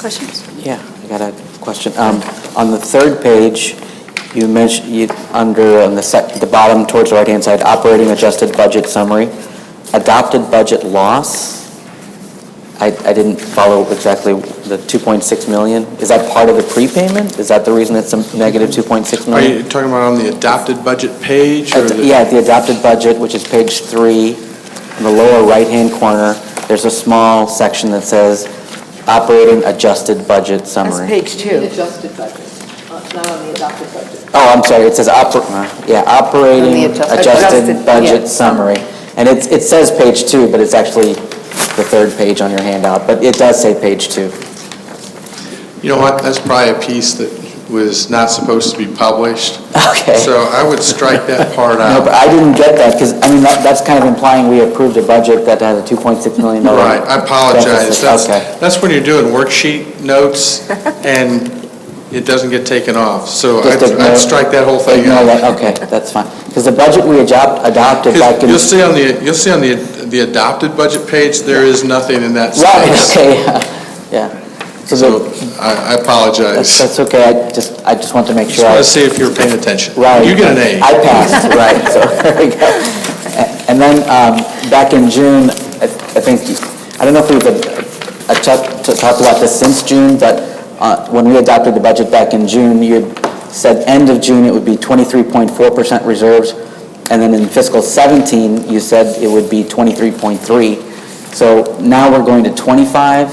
Questions? Yeah, I got a question. Um, On the third page, you mentioned, you, under, on the sec, the bottom towards the right-hand side, operating adjusted budget summary, adopted budget loss. I, I didn't follow exactly the 2.6 million. Is that part of the prepayment? Is that the reason it's a negative 2.6 Are million? you talking about on the adopted budget page? or Ad- the- Yeah, the adopted budget, which is page three, in the lower right-hand corner, there's a small section that says operating adjusted budget That's summary. page The two. adjusted budget, uh, not on the adopted budget. Oh, I'm sorry, it says oper, yeah, On the operating adjusted- adjusted Adjusted, budget yeah. summary. And it's, it says page two, but it's actually the third page on your handout, but it does say page two. You know what, that's probably a piece that was not supposed to be published, Okay. so uh, I would strike that part No, but out. I didn't get that, because, I mean, that, that's kind of implying we approved a budget that had a $2.6 million Right, I apologize. deficit. That's, Okay, that's when you're doing worksheet notes and it doesn't get taken off, so I'd Just I'd ignore- strike that whole thing ignore out. that, okay, that's fine. Because the budget we adopt- adopted back 'Cause in... You'll see on the, you'll see on the, the adopted budget page, there is nothing in that Right, space. okay, yeah, yeah. So So the- I I that's, apologize. that's okay, I just, I just want to make Just sure. want I- to see if you're paying attention. Right. You get an A. I passed, right, so there we go. A- And then, um, back in June, I I think, I don't know if we've uh, uh, talked to- talked about this since June, but uh, when we adopted the budget back in June, you had said end of June, it would be 23.4% reserves, and then in fiscal 17, you said it would be 23.3. So now we're going to 25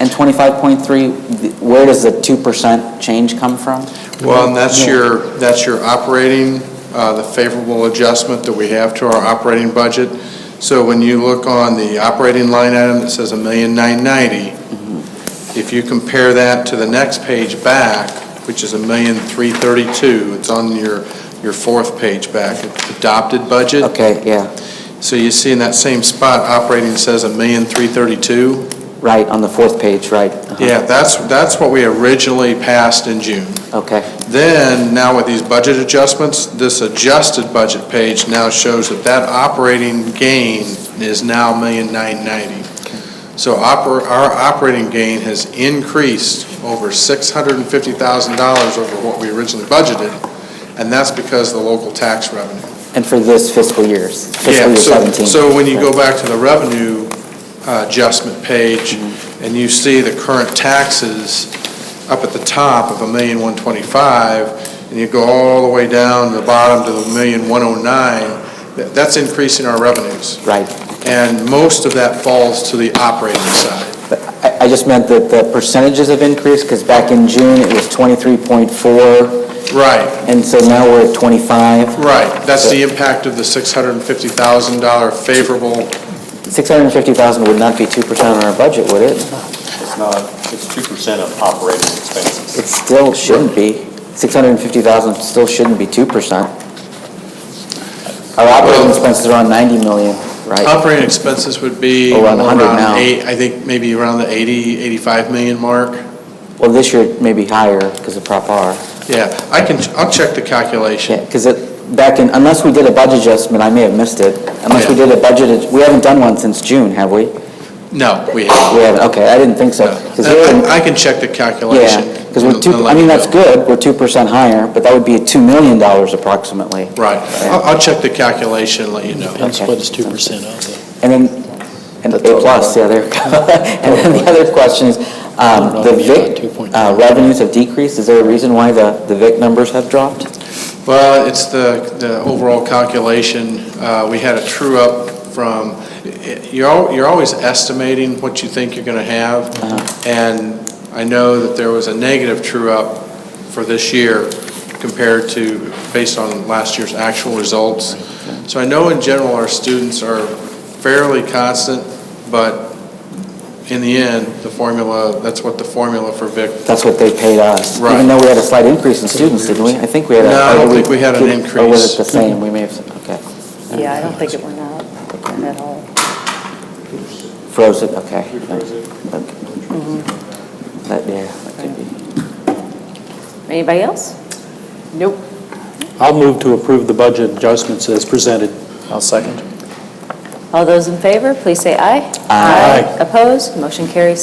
and 25.3. Th- Where does the 2% change come from? Well, and that's your, that's your operating, uh, the favorable adjustment that we have to our operating budget. So when you look on the operating line item that says a million nine ninety, if you compare that to the next page back, which is a million three thirty-two, it's on your, your fourth page back, adopted budget. Okay, yeah. So you see in that same spot, operating says a million three thirty-two. Right, on the fourth page, right. Uh-huh. Yeah, that's, that's what we originally passed in June. Okay, Then, now with these budget adjustments, this adjusted budget page now shows that that operating gain is now million nine ninety. So oper, our operating gain has increased over six hundred and fifty thousand dollars over what we originally budgeted, and that's because of the local tax revenue. and for this fiscal year's, fiscal Yeah. year So 17. So when you go back to the revenue uh, adjustment page, Mm-hmm. and you see the current taxes up at the top of a million one twenty-five, and you go all the way down to the bottom to the million one oh nine, that's increasing our revenues. Right. And most of that falls to the operating side. But I I just meant that the percentages have increased, because back in June, it was 23.4, Right, and so now we're at 25. right. That's the impact of the six hundred and fifty thousand dollar favorable 650,000 would not be 2% on our budget, would it? It's not, it's 2% of operating expenses. It still shouldn't be. 650,000 still shouldn't be 2%. Our operating Well- expenses are on 90 million, right? Operating expenses would be Around 100 now. around eight, I think maybe around the 80, 85 million mark. Well, this year, maybe higher, because of Prop R. Yeah, I can, I'll check the calculation. Yeah, because it, back in, unless we did a budget adjustment, I may have missed it, unless we did a budget, ad- we haven't done one since June, have we? No, we haven't. We haven't, okay, I didn't think so. 'Cause we're in- No. I I can check the calculation. Yeah, because we're and- two, and I let mean, you that's know. good, we're 2% higher, but that would be $2 million approximately. Right. I'll, I'll check the calculation and let you know. That's what it's two percent of. And then, and A plus, yeah, there we go. And then the other question is, um, the Revenue at VIC 2.5. uh, revenues have decreased, is there a reason why the, the VIC numbers have dropped? Well, it's the, the overall calculation. Uh, We had a true-up from, you're, al- you're always estimating what you think you're going to have, and I know that there was a negative true-up for this year compared to, based on last year's actual results. So I know in general, our students are fairly constant, but in the end, the formula, that's what the formula for VIC That's what they paid us. Right. Even though we had a slight increase in students, didn't we? I think we had a... No, I don't or did think we had an Or was increase. it the same? We may have, okay. Yeah, I don't think it went up at all. Frozen, okay. Okay. That, yeah, that could be. Anybody else? Nope. I'll move to approve the budget adjustments as presented. I'll second. All those in favor, please say aye. Aye. Opposed? Motion carries